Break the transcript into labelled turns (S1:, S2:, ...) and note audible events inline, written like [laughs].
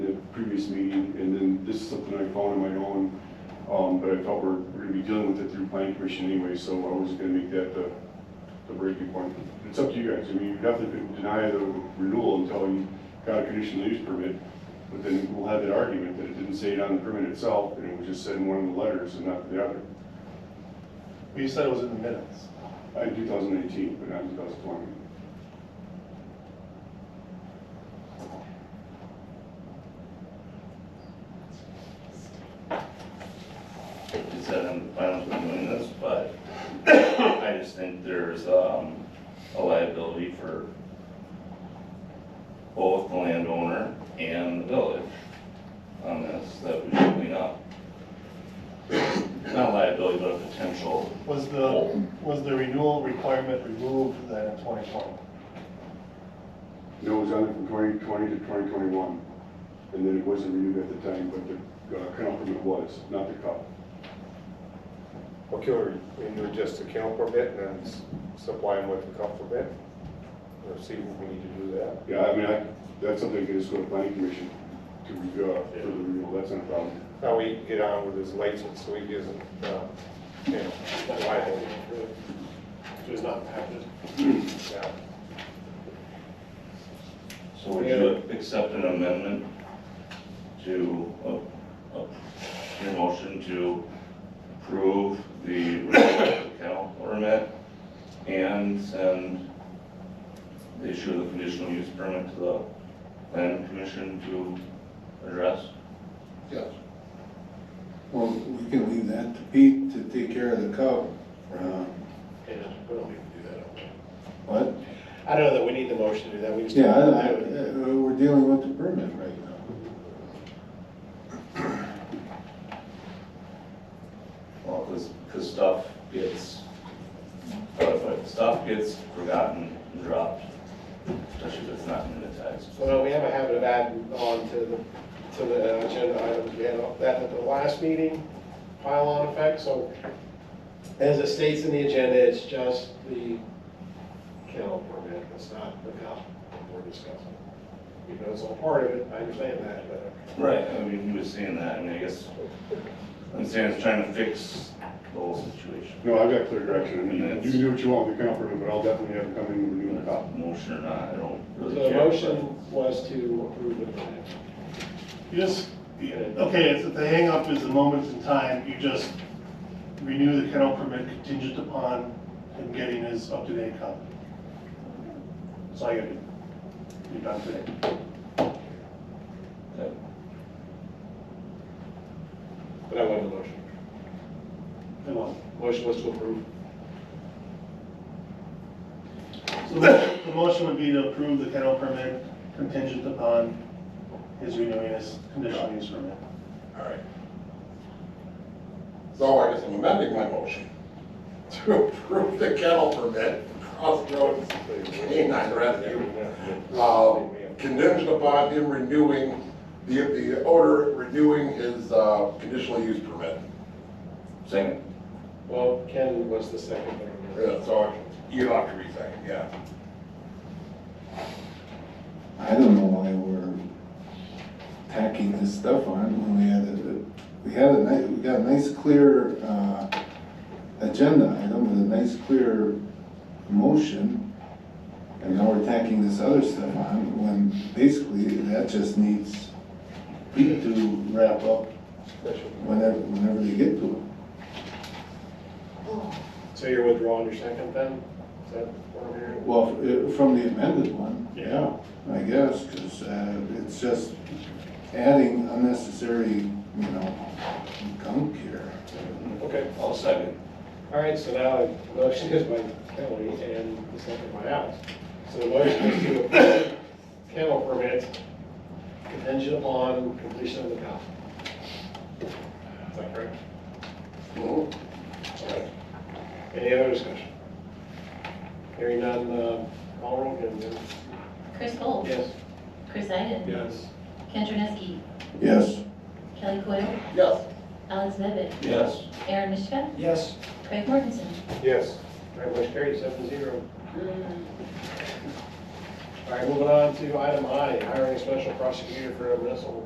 S1: previous meeting, and then this is something I found on my own, um, but I felt we're, we're gonna be dealing with it through planning commission anyway, so I was gonna make that the, the breaking point. It's up to you guys, I mean, you definitely could deny the renewal until you got a conditional use permit, but then we'll have that argument that it didn't say it on the permit itself, and it was just said in one of the letters and not the other.
S2: You said it was in the minutes.
S1: Uh, two thousand eighteen, but not two thousand twenty.
S3: It's said on the plans we're doing this, but I just think there's, um, a liability for both the landowner and the village on this that we should clean up. Not liability, but a potential,
S2: Was the, was the renewal requirement removed then in 2020?
S1: No, it was on it from twenty twenty to twenty twenty-one, and then it wasn't renewed at the time, but the uh, kennel permit was, not the cup.
S4: Okay, or you do just a kennel permit and then s- supply them with a cup permit? Or see if we need to do that?
S1: Yeah, I mean, I, that's something that is going to planning commission to, re- uh, for the renewal, that's not a problem.
S4: Now we can get on with his license, so he isn't, uh, you know, liable.
S2: It was not impacted.
S4: Yeah.
S3: so would you accept an amendment to, uh, uh, your motion to approve the renewal of the kennel permit and send the issue of the conditional use permit to the planning commission to address?
S5: Yes. Well, we can leave that to Pete to take care of the cow. Uh,
S6: Yeah, we don't need to do that.
S5: What?
S6: I don't know that we need the motion to do that, we just.
S5: Yeah, I- I- uh, we're dealing with the permit right now.
S3: Well, because, because stuff gets, but- but stuff gets forgotten and dropped, especially if it's not minutized.
S6: Well, we have a habit of adding on to the, to the uh, agenda items, we had that at the last meeting, pile-on effect, so as it states in the agenda, it's just the kennel permit, it's not the cup that we're discussing. Even though it's all part of it, I understand that, but.
S3: Right, I mean, he was saying that, I mean, I guess, I'm saying it's trying to fix the whole situation.
S1: No, I've got clear direction, I mean, you can do what you want with the kennel permit, but I'll definitely have it come in and renew the cup.
S3: Motion or not, I don't really
S6: The
S3: care.
S6: motion was to approve the permit.
S2: You just, okay, it's, the hangup is the moment in time, you just renew the kennel permit contingent upon him getting his up-to-date copy. That's all you gotta do. You're done today.
S3: but-
S6: But I want the motion.
S2: Come on.
S6: Motion was to approve.
S2: So the the motion would be to approve the kennel permit contingent upon his renewing his conditional use permit.
S7: All right. So I guess I'm amending my motion [laughs] to approve the kennel permit, Crossroads Canine Rescue, uh, contingent upon him renewing, the, the owner renewing his uh, conditional use permit.
S3: Second,
S6: Well, Ken was the second.
S7: Yeah, So you don't have to re-second, yeah.
S5: I don't know why we're tacking this stuff on when we had a, we had a nice, we got a nice clear, uh, agenda item with a nice clear motion. And now we're tacking this other stuff on when basically that just needs Pete to wrap up whenever, whenever they get to it.
S6: So you're withdrawing your second then? Is that what I'm hearing?
S5: Well, f- uh, from the amended one,
S2: Yeah.
S5: yeah, I guess, because it's just adding unnecessary, you know, gunk here.
S6: Okay,
S3: I'll second.
S6: all right, so now the motion is by Kelly and the second by Alex. So the motion is to approve kennel permit contingent upon completion of the ballot. Is that correct?
S7: Mhm.
S6: All right. Any other discussion? Hearing none, uh, call roll, Ken, then.
S8: Chris Gold.
S6: Yes.
S8: Chris Iden.
S6: Yes.
S8: Ken Janiski.
S5: Yes,
S8: Kelly Coyle.
S7: Yes,
S8: Alex Bevett.
S3: Yes.
S8: Aaron Mishka.
S6: Yes.
S8: Craig Mortensen.
S4: Yes.
S6: All right, motion carried, seven zero. All right, moving on to item I, hiring a special prosecutor for a municipal